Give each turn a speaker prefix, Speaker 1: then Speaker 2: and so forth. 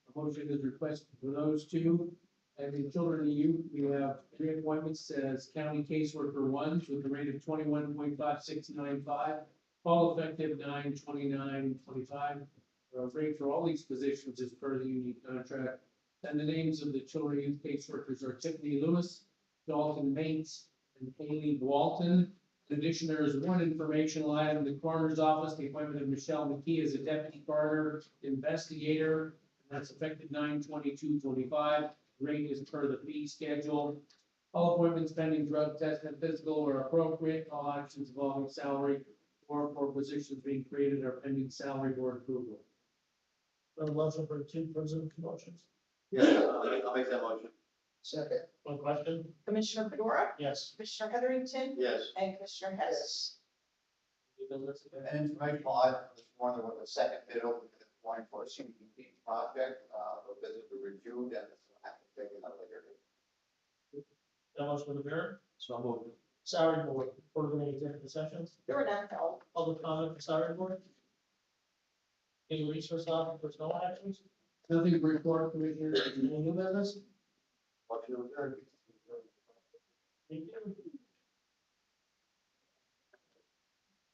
Speaker 1: motion is requested for those two. And the children and youth, we have three appointments as county caseworker ones with a rate of twenty-one point five six nine five, all effective nine twenty-nine twenty-five. Uh, rate for all these positions is per the union contract. And the names of the children and youth caseworkers are Tiffany Lewis, Dalton Bates, and Haley Walton. In addition, there is one informational item, the coroner's office, the appointment of Michelle McKee as a deputy coroner investigator. and That's effective nine twenty-two twenty-five, rate is per the fee schedule. All appointments pending drug test and physical are appropriate, all actions involving salary or for positions being created are pending salary board approval.
Speaker 2: A motion for two presumed motions.
Speaker 3: Yes, I'll make, I'll make that motion.
Speaker 2: Second. One question?
Speaker 4: Commissioner Fedora,
Speaker 2: Yes.
Speaker 4: Commissioner Heatherington,
Speaker 3: Yes.
Speaker 4: and Commissioner Hess.
Speaker 3: An informational item this morning was a second bid open this morning for a CDBG project, uh, for visit to review, and this will have to take another later.
Speaker 2: That motion for the mayor,
Speaker 1: So I'm over.
Speaker 2: salary board, order any executive sessions,
Speaker 4: There were none held.
Speaker 2: public comment for salary board. Any resource officer personnel actions,
Speaker 1: Nothing to report, Commissioner,
Speaker 2: any new business?
Speaker 3: Motion to adjourn.
Speaker 2: Thank you.